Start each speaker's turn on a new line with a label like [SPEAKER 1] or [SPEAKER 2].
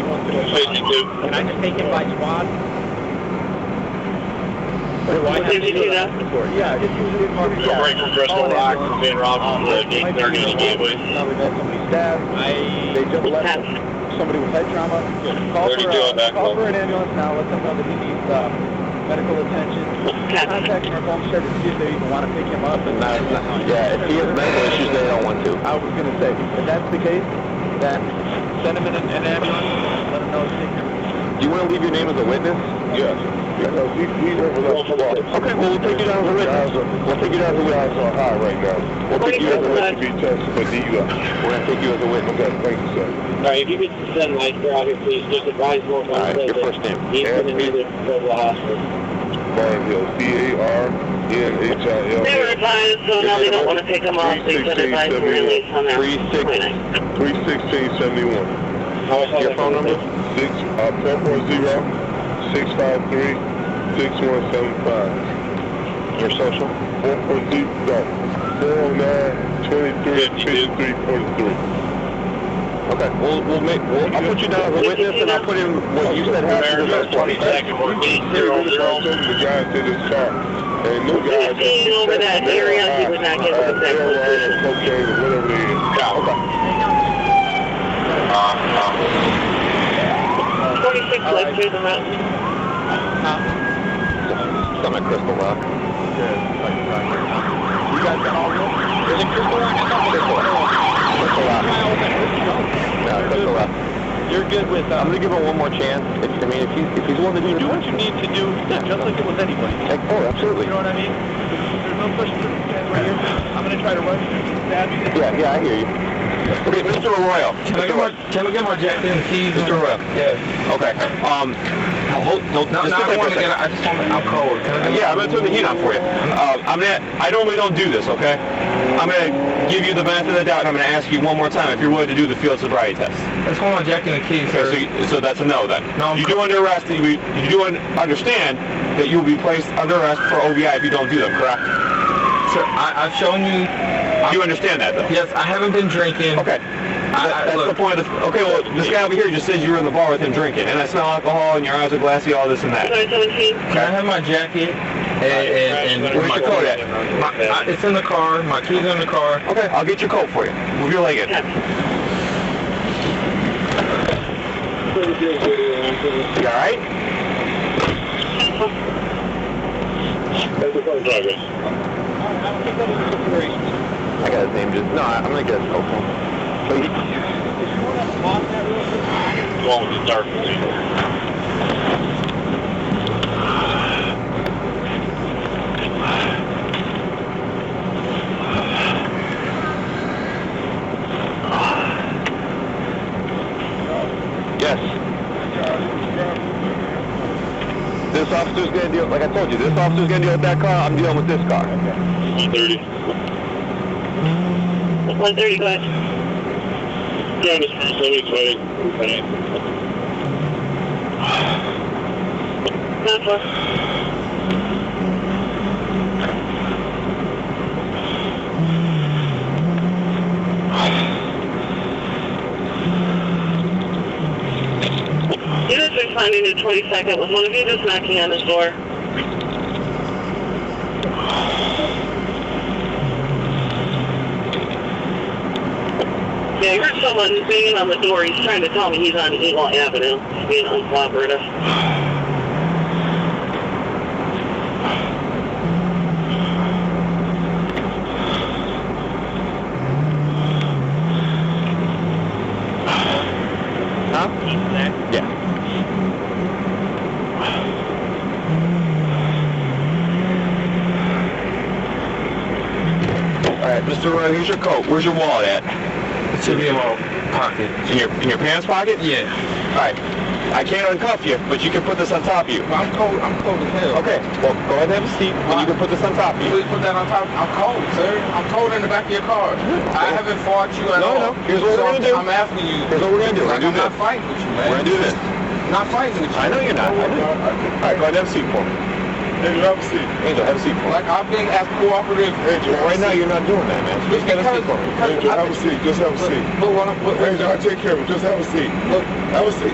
[SPEAKER 1] Should you do?
[SPEAKER 2] Can I just take it by squad? Or do I have to
[SPEAKER 3] Did you
[SPEAKER 2] do
[SPEAKER 3] do
[SPEAKER 2] that? Yeah, just usually mark.
[SPEAKER 1] Go break from Crystal Rock, from Van Robinson, to eight thirty to Gateway.
[SPEAKER 4] Now we've had somebody stabbed, they
[SPEAKER 2] I,
[SPEAKER 4] just left, somebody with head trauma. Call
[SPEAKER 1] Thirty
[SPEAKER 4] for,
[SPEAKER 1] two on
[SPEAKER 4] uh,
[SPEAKER 1] that
[SPEAKER 4] call
[SPEAKER 1] call.
[SPEAKER 4] for an ambulance now, let them know that he needs, uh, medical attention. Contact our home service, see if they even wanna pick him up and.
[SPEAKER 5] Yeah, if he has medical issues, they don't want to.
[SPEAKER 4] I was gonna say, if that's the case, then send him in an an ambulance, let him know it's taken.
[SPEAKER 5] Do you want to leave your name as a witness?
[SPEAKER 1] Yes.
[SPEAKER 5] Because we, we live with
[SPEAKER 1] us today.
[SPEAKER 5] Okay, well, we'll take you down as a witness. We'll take you down as a witness.
[SPEAKER 6] are high right now.
[SPEAKER 5] We'll take you as a
[SPEAKER 6] Let you be
[SPEAKER 5] witness.
[SPEAKER 6] tested for DUI.
[SPEAKER 5] We're going to take you as a witness.
[SPEAKER 6] Okay, thank you, sir.
[SPEAKER 3] All right, if you could send Lester out here, please, just advise him.
[SPEAKER 5] All right, your first name.
[SPEAKER 3] He's gonna need to go to the hospital.
[SPEAKER 6] Barnhill, B-A-R-N-H-I-L.
[SPEAKER 3] They were advised, so now they don't wanna take them off, they said advise and release on that.
[SPEAKER 5] Three six-
[SPEAKER 6] Three sixteen seventy-one.
[SPEAKER 5] Your phone number?
[SPEAKER 6] Six, uh, four four zero, six five three, six one seven five.
[SPEAKER 5] Your social?
[SPEAKER 6] Four four zero, no, four oh nine, twenty-three, fifty-three, forty-three.
[SPEAKER 5] Okay, we'll, we'll make, we'll, I'll put you down as a witness and I'll put in what you said happened to
[SPEAKER 1] America,
[SPEAKER 5] those
[SPEAKER 1] twenty
[SPEAKER 5] twenty.
[SPEAKER 1] second, fourteen,
[SPEAKER 6] They
[SPEAKER 1] zero,
[SPEAKER 6] really
[SPEAKER 1] zero.
[SPEAKER 6] don't take the guys to this car. And no guys.
[SPEAKER 3] Fifteen over that area, he would not get
[SPEAKER 5] Uh,
[SPEAKER 3] the second
[SPEAKER 6] Marijuana, cocaine, or whatever it is.
[SPEAKER 4] Uh,
[SPEAKER 3] Twenty-six Lester, the mountain.
[SPEAKER 5] Some at Crystal Rock.
[SPEAKER 4] You guys got all this?
[SPEAKER 5] Is it Crystal Rock? I thought Crystal Rock. Crystal Rock. No, Crystal Rock.
[SPEAKER 4] You're good with,
[SPEAKER 5] I'm
[SPEAKER 4] uh,
[SPEAKER 5] gonna give him one more chance. If, I mean, if he's, if he's willing to do
[SPEAKER 4] do
[SPEAKER 5] it,
[SPEAKER 4] what you need to do, just like it was anybody.
[SPEAKER 5] take four, absolutely.
[SPEAKER 4] You know what I mean? There's no push through. Right here. I'm gonna try to rush through. Stab you.
[SPEAKER 5] Yeah, yeah, I hear you. Okay, Mr. Arroyo. Mr. Arroyo.
[SPEAKER 7] Can we get more Jack Daniels keys?
[SPEAKER 5] Mr. Arroyo.
[SPEAKER 7] Yeah.
[SPEAKER 5] Okay, um, hold, hold,
[SPEAKER 7] No,
[SPEAKER 5] just sit
[SPEAKER 7] no, I
[SPEAKER 5] there for a
[SPEAKER 7] want to
[SPEAKER 5] second.
[SPEAKER 7] get, I just want to, I'm cold. Can I get-
[SPEAKER 5] Yeah, I'm gonna turn the heat on for you. Uh, I'm gonna, I normally don't do this, okay? I'm gonna give you the benefit of the doubt, and I'm gonna ask you one more time if you're willing to do the field sobriety test.
[SPEAKER 7] I just want more Jack Daniels keys,
[SPEAKER 5] Okay, so,
[SPEAKER 7] sir.
[SPEAKER 5] you- so that's a no then.
[SPEAKER 7] No, I'm-
[SPEAKER 5] You do under arrest, you, you do un- understand that you will be placed under arrest for OVI if you don't do them, correct?
[SPEAKER 7] Sir, I, I've shown you,
[SPEAKER 5] You understand that though?
[SPEAKER 7] yes, I haven't been drinking.
[SPEAKER 5] Okay. That-
[SPEAKER 7] I-
[SPEAKER 5] that's the
[SPEAKER 7] look.
[SPEAKER 5] point of the, okay, well, this guy over here just said you were in the bar with him drinking, and I smell alcohol, and your eyes are glassy, all this and that.
[SPEAKER 3] Sorry, seventeen.
[SPEAKER 7] Can I have my jacket and, and, and
[SPEAKER 5] Where's
[SPEAKER 7] my
[SPEAKER 5] your coat at?
[SPEAKER 7] My, I, it's in the car. My keys are in the car.
[SPEAKER 5] Okay, I'll get your coat for you. Move your leg in. You all right? I got his name just. No, I'm gonna get his coat for him.
[SPEAKER 1] Going with the dark green.
[SPEAKER 5] Yes. This officer's gonna deal. Like I told you, this officer's gonna deal with that car. I'm dealing with this car.
[SPEAKER 1] One thirty.
[SPEAKER 3] One thirty, go ahead.
[SPEAKER 1] Yeah, this person, somebody's waiting. Okay.
[SPEAKER 3] Nine four. Units responding to 22nd. Was one of you just knocking on his door? Yeah, I heard someone banging on the door. He's trying to tell me he's on Eagle Avenue. He's being uncooperative.
[SPEAKER 5] Huh? Yeah. All right, Mr. Roy, here's your coat. Where's your wallet at?
[SPEAKER 7] It should be in my pocket.
[SPEAKER 5] In your in your pants pocket?
[SPEAKER 7] Yeah.
[SPEAKER 5] All right. I can't uncuff you, but you can put this on top of you.
[SPEAKER 7] I'm cold. I'm cold as hell.
[SPEAKER 5] Okay. Well, go ahead and have a seat, and you can put this on top of you.
[SPEAKER 7] Please put that on top. I'm cold, sir. I'm cold in the back of your car. I haven't fought you at
[SPEAKER 5] No,
[SPEAKER 7] all.
[SPEAKER 5] no. Here's what
[SPEAKER 7] So
[SPEAKER 5] we're gonna
[SPEAKER 7] I'm-
[SPEAKER 5] do.
[SPEAKER 7] I'm asking you.
[SPEAKER 5] Here's what we're gonna do. We're
[SPEAKER 7] Like,
[SPEAKER 5] gonna do
[SPEAKER 7] I'm not
[SPEAKER 5] this.
[SPEAKER 7] fighting with you,
[SPEAKER 5] We're
[SPEAKER 7] man.
[SPEAKER 5] gonna do this.
[SPEAKER 7] Not fighting with you.
[SPEAKER 5] I know you're not. I know. All right, go ahead and have a seat for me.
[SPEAKER 6] Angel, have a seat.
[SPEAKER 5] Angel, have a seat for me.
[SPEAKER 7] Like I've been as cooperative.
[SPEAKER 6] Angel, have a
[SPEAKER 5] Right now,
[SPEAKER 6] seat.
[SPEAKER 5] you're not doing that, man. Just get a seat for me.
[SPEAKER 7] Because-
[SPEAKER 6] Angel, have a seat, just have a
[SPEAKER 7] But,
[SPEAKER 6] seat.
[SPEAKER 7] but what I'm, but,
[SPEAKER 6] Angel, I'll take care of it, just have a seat.
[SPEAKER 7] look,
[SPEAKER 6] Have a seat.